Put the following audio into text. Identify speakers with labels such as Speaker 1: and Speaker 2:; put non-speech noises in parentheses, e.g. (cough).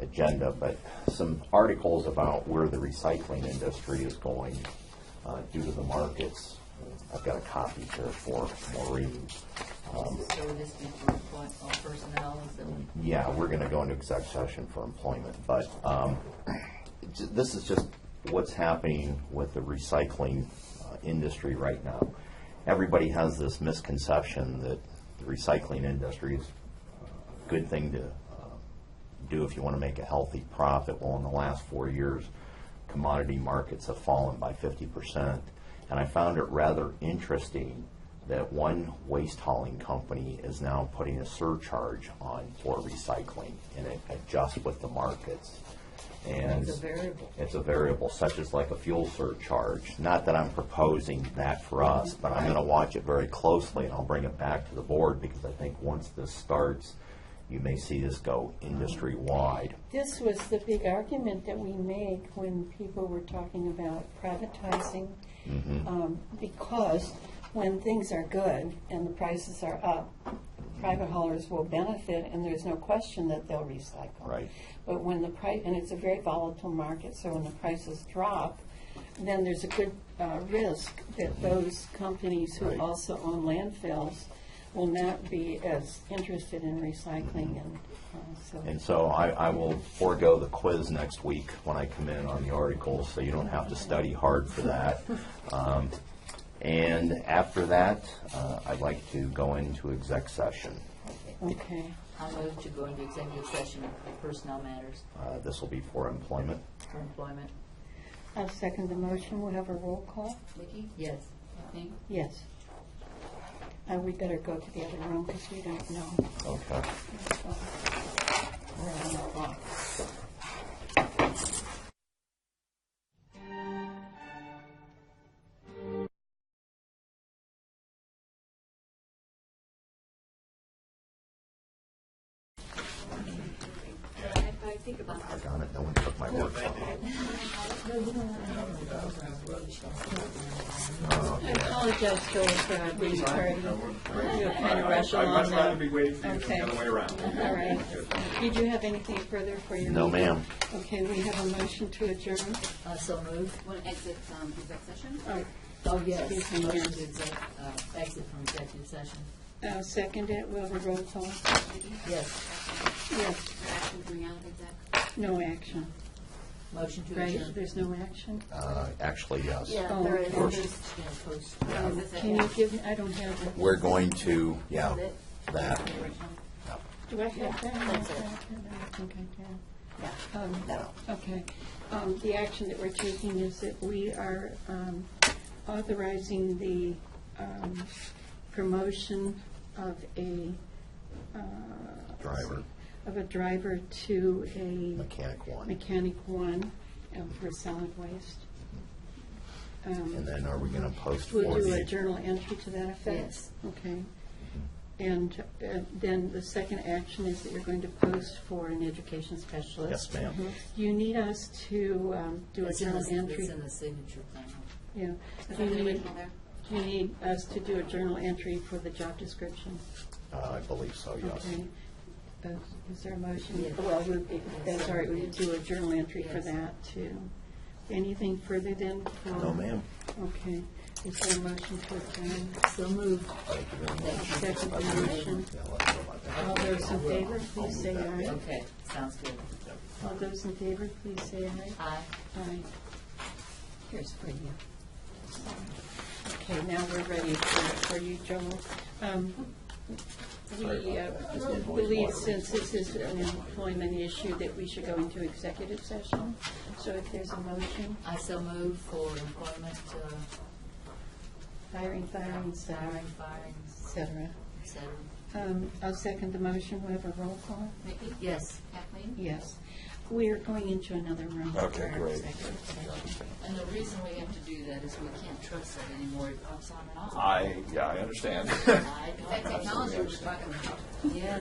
Speaker 1: agenda, but some articles about where the recycling industry is going uh, due to the markets. I've got a copy here for Maureen.
Speaker 2: So would this be for employ- all personnel, is it?
Speaker 1: Yeah, we're gonna go into exec session for employment, but um, j- this is just what's happening with the recycling uh, industry right now. Everybody has this misconception that the recycling industry is a good thing to uh, do if you want to make a healthy profit. Well, in the last four years, commodity markets have fallen by 50%. And I found it rather interesting that one waste hauling company is now putting a surcharge on for recycling, and it adjusts with the markets. And
Speaker 2: It's a variable.
Speaker 1: It's a variable, such as like a fuel surcharge. Not that I'm proposing that for us, but I'm going to watch it very closely, and I'll bring it back to the board, because I think once this starts, you may see this go industry-wide.
Speaker 3: This was the big argument that we made when people were talking about privatizing.
Speaker 1: Mm-hmm.
Speaker 3: um, Because when things are good and the prices are up, private haulers will benefit and there's no question that they'll recycle.
Speaker 1: Right.
Speaker 3: But when the price, and it's a very volatile market, so when the prices drop, then there's a good uh, risk that those companies who
Speaker 1: Right.
Speaker 3: also own landfills will not be as interested in recycling and uh, so.
Speaker 1: And so I, I will forego the quiz next week when I come in on the articles, so you don't have to study hard for
Speaker 2: (laughs)
Speaker 1: that. Um, And after that, uh, I'd like to go into exec session.
Speaker 3: Okay.
Speaker 2: I'll move to go into executive session for personnel matters,
Speaker 1: Uh, This will be for employment.
Speaker 2: for employment.
Speaker 3: I'll second the motion. We'll have a roll call.
Speaker 2: Vicki? Yes. Kathleen?
Speaker 3: Yes. Uh, we better go to the other room because we don't know.
Speaker 1: Okay.
Speaker 3: We're on the clock.
Speaker 1: Doggone it, no one took my work.
Speaker 3: I apologize, Joel, for not being tardy. You're kind of rushing
Speaker 4: I
Speaker 3: along
Speaker 4: must not
Speaker 3: now.
Speaker 4: be waiting for you
Speaker 3: Okay.
Speaker 4: the other way around.
Speaker 3: All right. Did you have anything further for your?
Speaker 1: No,
Speaker 3: meeting?
Speaker 1: ma'am.
Speaker 3: Okay, we have a motion to adjourn.
Speaker 2: Uh, so moved.
Speaker 5: Want to exit um, exec session?
Speaker 3: Oh,
Speaker 2: Oh, yes.
Speaker 3: Excuse me,
Speaker 2: Motion
Speaker 3: yes.
Speaker 2: to exec, uh, exit from executive session.
Speaker 3: I'll second it. We'll have a roll call.
Speaker 2: Yes.
Speaker 3: Yes,
Speaker 5: Action coming out of exec?
Speaker 3: no action,
Speaker 2: Motion to
Speaker 3: right?
Speaker 2: adjourn.
Speaker 3: There's no action?
Speaker 1: Uh, Actually, yes.
Speaker 3: Oh,
Speaker 5: there is.
Speaker 2: We're just gonna post-
Speaker 3: Um, Can you give, me? I don't have it.
Speaker 1: We're going to, yeah, that.
Speaker 3: Do I have that?
Speaker 5: that's it.
Speaker 3: I think I do. Um, Okay. Um, The action that we're taking is that we are um, authorizing the um, promotion of a,
Speaker 1: Driver,
Speaker 3: of a driver to a
Speaker 1: mechanic one.
Speaker 3: mechanic one uh, for solid waste.
Speaker 1: And then are we going to post for
Speaker 3: We'll do a
Speaker 1: the,
Speaker 3: journal entry to that effect?
Speaker 2: Yes.
Speaker 3: Okay. And uh, then the second action is that you're going to post for an education
Speaker 1: yes,
Speaker 3: specialist.
Speaker 1: ma'am.
Speaker 3: Do you need us to um, do a
Speaker 2: It's in
Speaker 3: journal
Speaker 2: the,
Speaker 3: entry?
Speaker 2: it's in the signature plan.
Speaker 3: Yeah. Do
Speaker 5: Is that
Speaker 3: you
Speaker 5: the
Speaker 3: need,
Speaker 5: original there?
Speaker 3: do you need us to do a journal entry for the job description?
Speaker 1: Uh, I believe so, yes.
Speaker 3: Okay. Uh, Is there a motion?
Speaker 2: Yes.
Speaker 3: Well, we- that's all right, we would do a journal entry for
Speaker 2: Yes.
Speaker 3: that, too. Anything further then? for-
Speaker 1: No, ma'am.
Speaker 3: Okay. Is there a motion to adjourn?
Speaker 2: So moved.
Speaker 1: Thank you very much.
Speaker 3: Second motion.
Speaker 1: Yeah, let's go about that.
Speaker 3: All those in favor, please say aye.
Speaker 2: Okay, sounds good.
Speaker 3: All those in favor, please say aye.
Speaker 2: Aye.
Speaker 3: Aye. Here's for you. Okay, now we're ready for for you, Joel. Um, We uh, believe since this is an employment issue that we should go into executive session. So if there's a motion,
Speaker 2: I so moved for employment, uh,
Speaker 3: hiring, firing, salary,
Speaker 2: hiring, firings,
Speaker 3: et cetera.
Speaker 2: et cetera.
Speaker 3: Um, I'll second the motion. We have a roll call.
Speaker 5: Vicki?
Speaker 2: Yes.
Speaker 5: Kathleen?
Speaker 3: Yes. We are going into another room. for
Speaker 1: Okay,
Speaker 3: our
Speaker 1: great.
Speaker 3: executive session.
Speaker 5: And the reason we have to do that is we can't trust it anymore, it pops on and off.
Speaker 4: I, yeah, I understand.
Speaker 5: That technology we're talking about.
Speaker 2: Yes.